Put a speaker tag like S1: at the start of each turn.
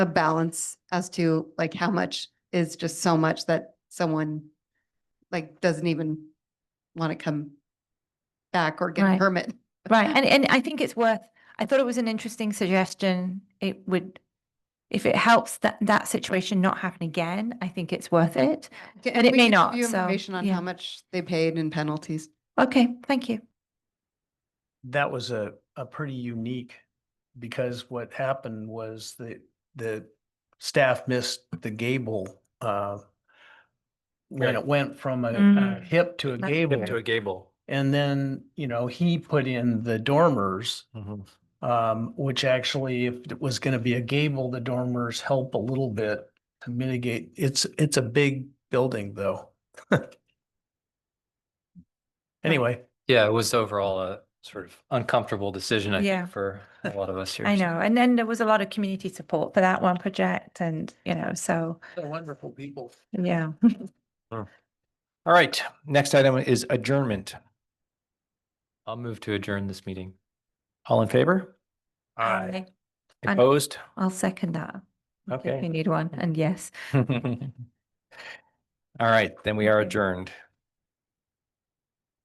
S1: a balance as to like how much is just so much that someone like doesn't even want to come back or get a
S2: Right.
S1: permit.
S2: Right, and, and I think it's worth, I thought it was an interesting suggestion. It would, if it helps that, that situation not happen again, I think it's worth it.
S1: Okay,
S2: But it
S1: we
S2: may
S1: can give
S2: not,
S1: you
S2: so,
S1: Information on
S2: yeah.
S1: how much they paid in penalties.
S2: Okay, thank you.
S3: that was a, a pretty unique, because what happened was the, the staff missed the gable, uh, when
S4: Right.
S3: it went from a- a
S2: Mm.
S3: hip to a
S2: Hip
S3: gable.
S4: Into a gable.
S3: And then, you know, he put in the dormers,
S2: Mm-hmm.
S3: um, which actually, if it was going to be a gable, the dormers help a little bit to mitigate. It's, it's a big building though. Anyway,
S4: Yeah, it was overall a sort of uncomfortable decision, I
S2: Yeah.
S4: think, for a lot of us here.
S2: I
S4: so.
S2: know. And then there was a lot of community support for that one project and, you know, so,
S3: they're wonderful people.
S2: yeah.
S5: All right, next item is adjournment.
S4: I'll move to adjourn this meeting.
S5: All in favor?
S2: I And-
S5: Opposed?
S2: I'll second that. If
S5: Okay.
S2: you need one, and yes.
S5: All right, then we are adjourned.